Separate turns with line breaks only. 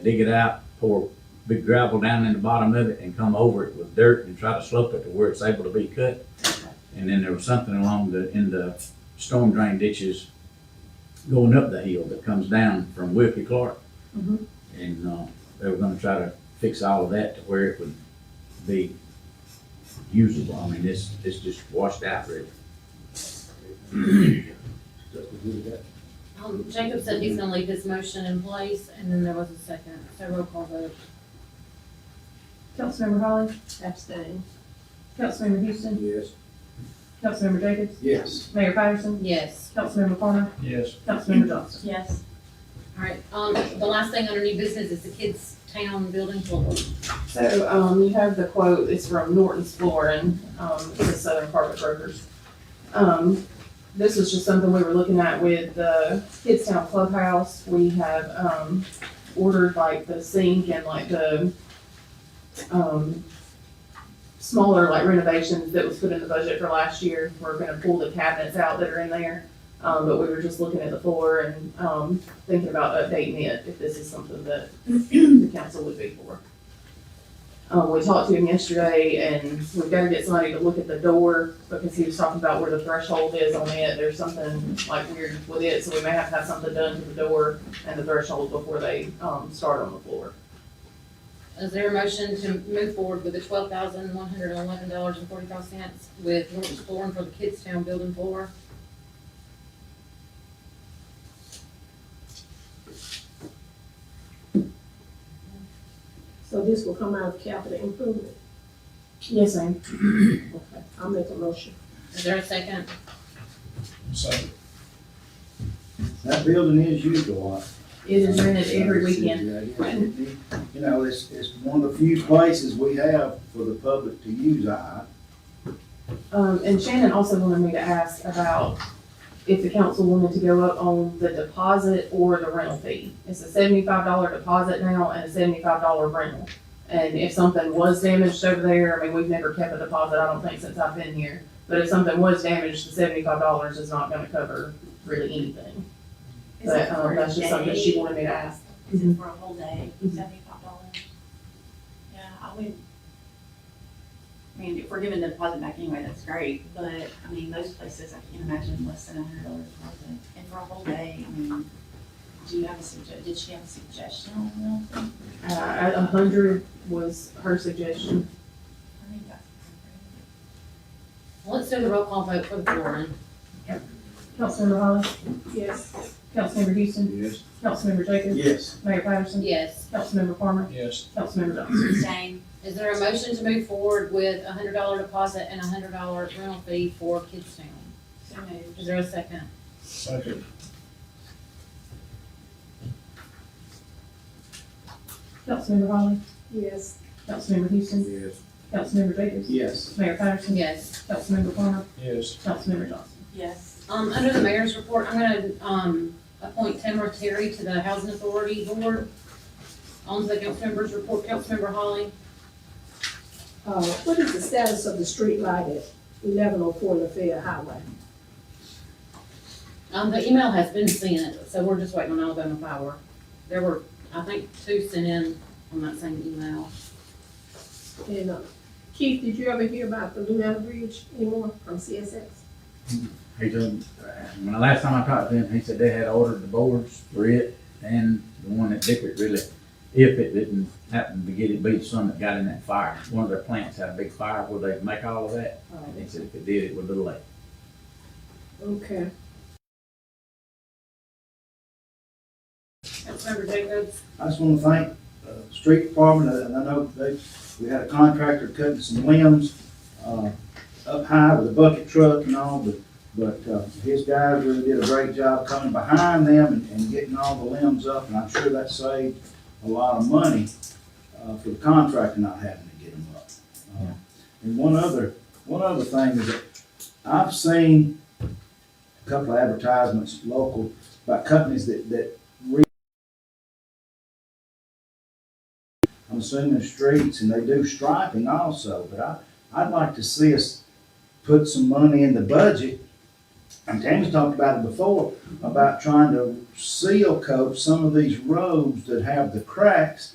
dig it out, pour big gravel down in the bottom of it and come over it with dirt and try to slope it to where it's able to be cut. And then there was something along the, in the storm drain ditches going up the hill that comes down from Wilkie Clark.
Mhm.
And, uh, they were gonna try to fix all of that to where it would be usable. I mean, it's, it's just washed out really.
Um, Jacob said he's gonna leave his motion in place, and then there was a second, so roll call vote.
Councilmember Holly? Abstain. Councilmember Houston?
Yes.
Councilmember Jacobs?
Yes.
Mayor Patterson?
Yes.
Councilmember Farmer?
Yes.
Councilmember Johnson?
Yes. All right, um, the last thing under new business is the kids' town building floor.
So, um, you have the quote, it's from Norton's Flooring, um, it's a Southern Carpet Brokers. Um, this was just something we were looking at with the Kidstown Clubhouse, we have, um, ordered like the sink and like the, um, smaller like renovations that was put in the budget for last year, we're gonna pull the cabinets out that are in there. Um, but we were just looking at the floor and, um, thinking about updating it, if this is something that the council would be for. Um, we talked to him yesterday and we've gotta get somebody to look at the door because he was talking about where the threshold is on it. There's something like weird with it, so we may have to have something done to the door and the threshold before they, um, start on the floor.
Is there a motion to move forward with the twelve thousand one hundred and eleven dollars and forty-five cents with Norton's flooring for the kids' town building floor?
So this will come out of capital improvement.
Yes, ma'am.
Okay, I'll make a motion.
Is there a second?
That building is used a lot.
It is rented every weekend.
weekend. You know, it's, it's one of the few places we have for the public to use, I,
Um, and Shannon also wanted me to ask about if the council wanted to go up on the deposit or the rental fee. It's a seventy-five dollar deposit now and a seventy-five dollar rental. And if something was damaged over there, I mean, we've never kept a deposit, I don't think, since I've been here. But if something was damaged, the seventy-five dollars is not gonna cover really anything. But, um, that's just something she wanted me to ask.
Is it for a whole day,
Mhm.
seventy-five dollars? Yeah, I would. I mean, if we're giving the deposit back anyway, that's great, but, I mean, most places, I can't imagine less than a hundred dollar deposit. And for a whole day, I mean, do you have a sugge, did she have a suggestion on that?
Uh, a hundred was her suggestion.
I think that's.
Let's do the roll call vote for the flooring.
Councilmember Holly?
Yes.
Councilmember Houston?
yes.
Councilmember Jacobs?
Yes.
Mayor Patterson?
Yes.
Councilmember Farmer?
Yes.
Councilmember Johnson?
Same,
Is there a motion to move forward with a hundred dollar deposit and a hundred dollar rental fee for kids' town?
so moved.
Is there a second?
Second.
Councilmember Holly?
Yes.
Councilmember Houston?
Yes.
Councilmember Jacobs?
Yes.
Mayor Patterson?
Yes.
Councilmember Farmer?
Yes.
Councilmember Johnson?
Yes,
Um, under the mayor's report, I'm gonna, um, appoint Tamara Terry to the Housing Authority Board. On to the council members' report, Councilmember Holly.
Uh, what is the status of the street light at eleven oh four Lafayette Highway?
Um, the email has been sent, so we're just waiting on Alabama Power. There were, I think, two sent in on that same email.
And, uh, Keith, did you ever hear about the Lunetta Bridge anymore from CSX?
He told, uh, when the last time I talked to him, he said they had ordered the boards for it and the one at Dickert really, if it didn't happen to get it, be the sun that got in that fire. One of their plants had a big fire where they make all of that. And he said if it did, it would be late.
Uh, Okay.
Councilmember Jacobs.
I just wanna thank, uh, street department, and I know they, we had a contractor cutting some limbs, uh, up high with a bucket truck and all, but, but, uh, his guys really did a great job coming behind them and, and getting all the limbs up, and I'm sure that saved a lot of money, uh, for the contractor not having to get them up. Uh, And one other, one other thing is that I've seen a couple of advertisements local by companies that, that I'm assuming streets, and they do striping also, but I, I'd like to see us put some money in the budget and Tammy's talked about it before, about trying to seal coat some of these roads that have the cracks